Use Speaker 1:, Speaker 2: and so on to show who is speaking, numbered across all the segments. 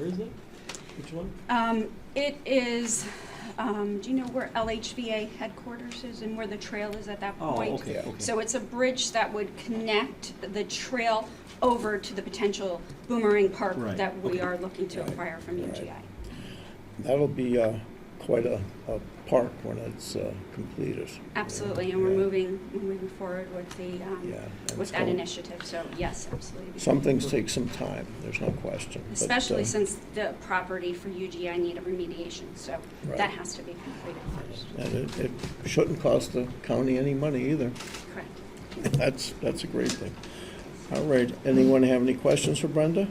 Speaker 1: it? Which one?
Speaker 2: Um, It is, um, do you know where LHVA headquarters is and where the trail is at that
Speaker 1: Oh,
Speaker 2: point?
Speaker 1: okay, okay.
Speaker 2: So it's a bridge that would connect the trail over to the potential boomerang park
Speaker 1: Right,
Speaker 2: that we
Speaker 1: okay.
Speaker 2: are looking to
Speaker 3: Right,
Speaker 2: acquire from
Speaker 3: right.
Speaker 2: UGI.
Speaker 3: That'll be uh, quite a, a park when it's uh, completed.
Speaker 2: Absolutely, and we're
Speaker 3: Yeah.
Speaker 2: moving, we're moving forward with the, um,
Speaker 3: Yeah, and
Speaker 2: with
Speaker 3: it's
Speaker 2: that
Speaker 3: called-
Speaker 2: initiative, so yes, absolutely.
Speaker 3: Some things take some time, there's no question. but,
Speaker 2: Especially
Speaker 3: uh,
Speaker 2: since the property for UGI need a remediation, so that
Speaker 3: Right.
Speaker 2: has to be completed first.
Speaker 3: And it, it shouldn't cost the county any money either.
Speaker 2: Correct.
Speaker 3: That's, that's a great thing. All right, anyone have any questions for Brenda?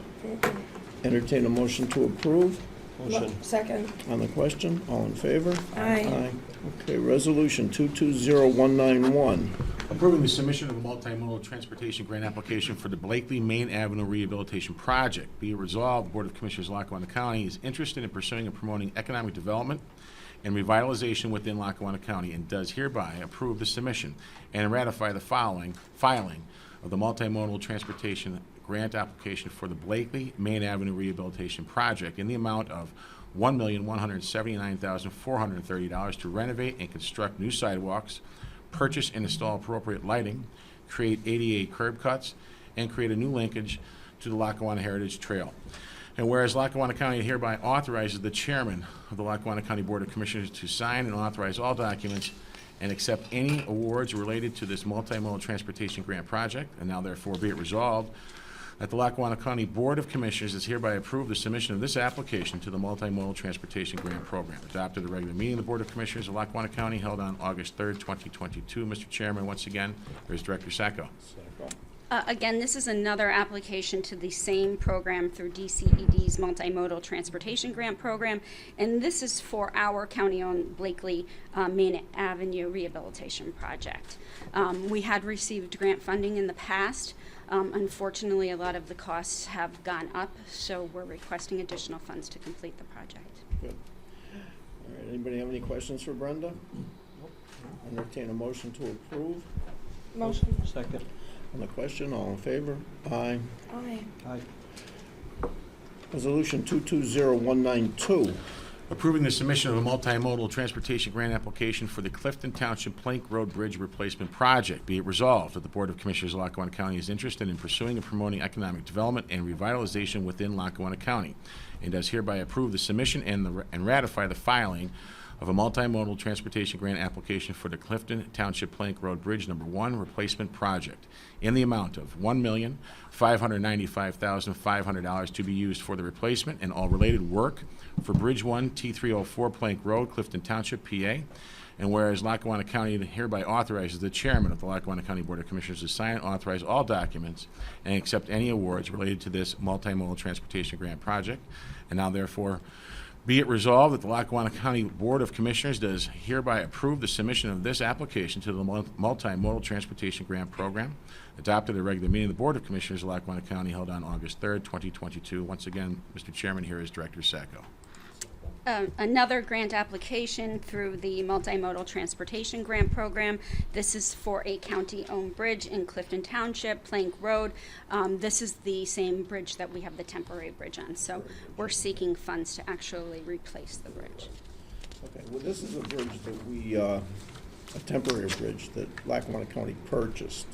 Speaker 3: Entertain a motion to approve
Speaker 1: Motion.
Speaker 4: Second.
Speaker 3: on the question, all in favor?
Speaker 4: Aye.
Speaker 3: Okay, resolution 220191.
Speaker 5: Approving the submission of a multimodal transportation grant application for the Blakely Main Avenue Rehabilitation Project. Be it resolved, the Board of Commissioners of Lackawanna County is interested in pursuing and promoting economic development and revitalization within Lackawanna County and does hereby approve the submission and ratify the following, filing of the multimodal transportation grant application for the Blakely Main Avenue Rehabilitation Project in the amount of $1,179,430 to renovate and construct new sidewalks, purchase and install appropriate lighting, create ADA curb cuts, and create a new linkage to the Lackawanna Heritage Trail. And whereas Lackawanna County hereby authorizes the chairman of the Lackawanna County Board of Commissioners to sign and authorize all documents and accept any awards related to this multimodal transportation grant project, and now therefore be it resolved that the Lackawanna County Board of Commissioners is hereby approved the submission of this application to the Multimodal Transportation Grant Program. Adopted a regular meeting of the Board of Commissioners of Lackawanna County held on August 3rd, 2022. Mr. Chairman, once again, there's Director Sacco.
Speaker 2: Uh, Again, this is another application to the same program through DCED's Multimodal Transportation Grant Program, and this is for our county-owned Blakely uh, Main Avenue Rehabilitation Project. Um, We had received grant funding in the past. Um, Unfortunately, a lot of the costs have gone up, so we're requesting additional funds to complete the project.
Speaker 3: Good. All right, anybody have any questions for Brenda? Entertain a motion to approve.
Speaker 4: Motion.
Speaker 1: Second.
Speaker 3: On the question, all in favor? Aye.
Speaker 4: Aye.
Speaker 1: Aye.
Speaker 3: Resolution 220192.
Speaker 5: Approving the submission of a multimodal transportation grant application for the Clifton Township Plank Road Bridge Replacement Project. Be it resolved that the Board of Commissioners of Lackawanna County is interested in pursuing and promoting economic development and revitalization within Lackawanna County, and does hereby approve the submission and the- and ratify the filing of a multimodal transportation grant application for the Clifton Township Plank Road Bridge Number One Replacement Project in the amount of one million, five hundred ninety-five thousand, five hundred dollars to be used for the replacement and all related work for Bridge One, T three oh four Plank Road, Clifton Township, PA. And whereas Lackawanna County hereby authorizes the chairman of the Lackawanna County Board of Commissioners to sign and authorize all documents and accept any awards related to this multimodal transportation grant project. And now therefore be it resolved that the Lackawanna County Board of Commissioners does hereby approve the submission of this application to the mul- Multimodal Transportation Grant Program, adopted at a regular meeting of the Board of Commissioners of Lackawanna County held on August 3rd, 2022. Once again, Mr. Chairman, here is Director Sacco.
Speaker 2: um, another grant application through the Multimodal Transportation Grant Program. This is for a county-owned bridge in Clifton Township, Plank Road. Um, This is the same bridge that we have the temporary bridge on, so we're seeking funds to actually replace the bridge.
Speaker 3: Okay, well, this is a bridge that we, uh, a temporary bridge that Lackawanna County purchased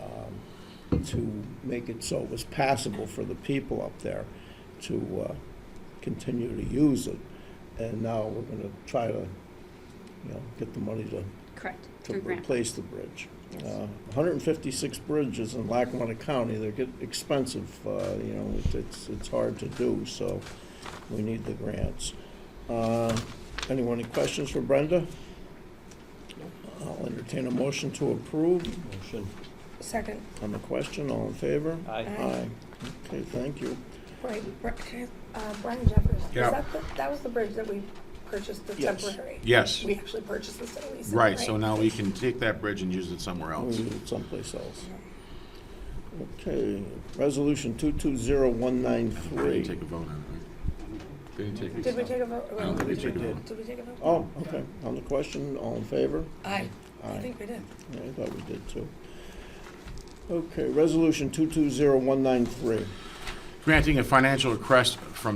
Speaker 3: um, to make it so it was passable for the people up there to uh, continue to use it. And now we're going to try to, you know, get the money to
Speaker 2: Correct,
Speaker 3: to
Speaker 2: through grant.
Speaker 3: replace the bridge.
Speaker 2: Yes.
Speaker 3: Uh, 156 bridges in Lackawanna County, they get expensive, uh, you know, it- it's, it's hard to do, so we need the grants. Uh, Anyone any questions for Brenda? I'll entertain a motion to approve
Speaker 1: Motion.
Speaker 4: Second.
Speaker 3: on the question, all in favor?
Speaker 1: Aye.
Speaker 3: Aye. Okay, thank you.
Speaker 4: Wait, Br- uh, Brian Jeffers. is
Speaker 5: Yeah.
Speaker 4: that the- That was the bridge that we purchased, the
Speaker 3: Yes.
Speaker 4: temporary.
Speaker 5: Yes.
Speaker 4: We actually purchased this at least.
Speaker 5: Right, so now we can take that bridge and use it somewhere
Speaker 3: We
Speaker 5: else.
Speaker 3: need it someplace else. Okay, resolution 220193.
Speaker 5: Take a vote on it, right? Didn't take
Speaker 4: Did we
Speaker 5: a-
Speaker 4: take a vote?
Speaker 5: I don't think we took a
Speaker 3: did.
Speaker 5: vote.
Speaker 4: Did we take a vote?
Speaker 3: Oh, okay, on the question, all in favor?
Speaker 4: Aye. I
Speaker 3: Aye,
Speaker 4: think we did.
Speaker 3: Yeah, I thought we did too. Okay, resolution 220193.
Speaker 5: Granting a financial request from